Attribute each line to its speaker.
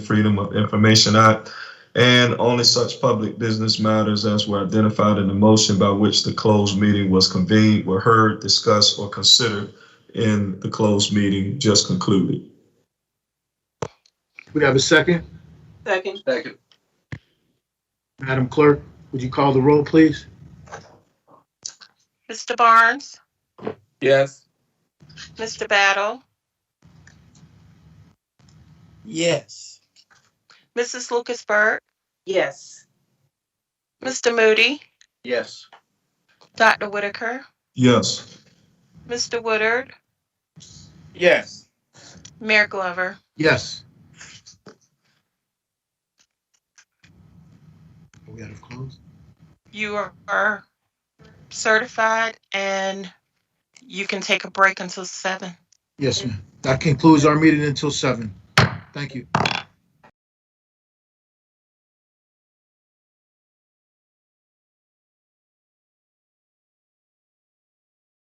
Speaker 1: Freedom of Information Act, and only such public business matters as were identified in the motion by which the closed meeting was convened were heard, discussed, or considered in the closed meeting just concluded.
Speaker 2: We have a second.
Speaker 3: Second,
Speaker 4: Second.
Speaker 2: Madam Clerk, would you call the roll, please?
Speaker 5: Mr. Barnes,
Speaker 4: Yes.
Speaker 5: Mr. Battle,
Speaker 6: Yes.
Speaker 5: Mrs. Lucasberg,
Speaker 3: yes.
Speaker 5: Mr. Moody,
Speaker 4: Yes.
Speaker 5: Dr. Whitaker,
Speaker 1: Yes,
Speaker 5: Mr. Woodard,
Speaker 6: Yes.
Speaker 5: Mayor Glover.
Speaker 2: Yes. Are we out of close?
Speaker 5: You are- are certified and you can take a break until seven.
Speaker 2: Yes, ma'am. That concludes our meeting until seven. Thank you.